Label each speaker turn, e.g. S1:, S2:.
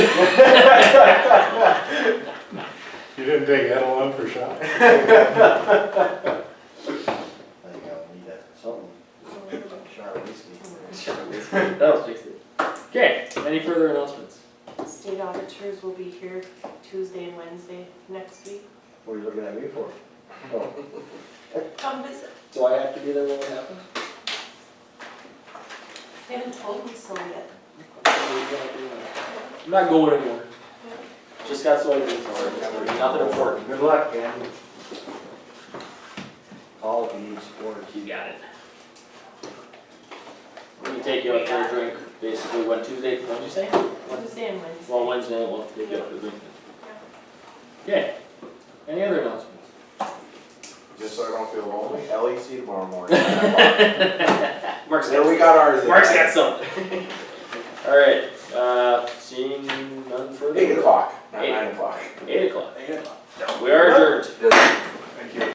S1: I think I'll need that, something, Char whiskey.
S2: That'll fix it. Okay, any further announcements?
S3: State auditors will be here Tuesday and Wednesday next week.
S1: What are you looking at me for? Oh,
S3: Come visit.
S2: Do I have to be there when it happens?
S3: They haven't told me so yet.
S2: I'm not going anywhere. Just got soybeans for it, nothing important.
S1: Good luck, Ken. Call if you need support.
S2: You got it. We can take you out for a drink, basically, what, Tuesday, what'd you say?
S3: Tuesday and Wednesday.
S2: Well, Wednesday, we'll take you out for a drink. Okay, any other announcements?
S4: Just so I don't feel lonely,
S1: E
S4: LEC tomorrow morning.
S2: Mark's
S4: There we
S2: got,
S4: got ours. in.
S2: Mark's got something. Alright, uh, seeing none further.
S4: Eight o'clock, not
S2: Eight.
S4: nine o'clock.
S2: Eight o'clock. We are adjourned.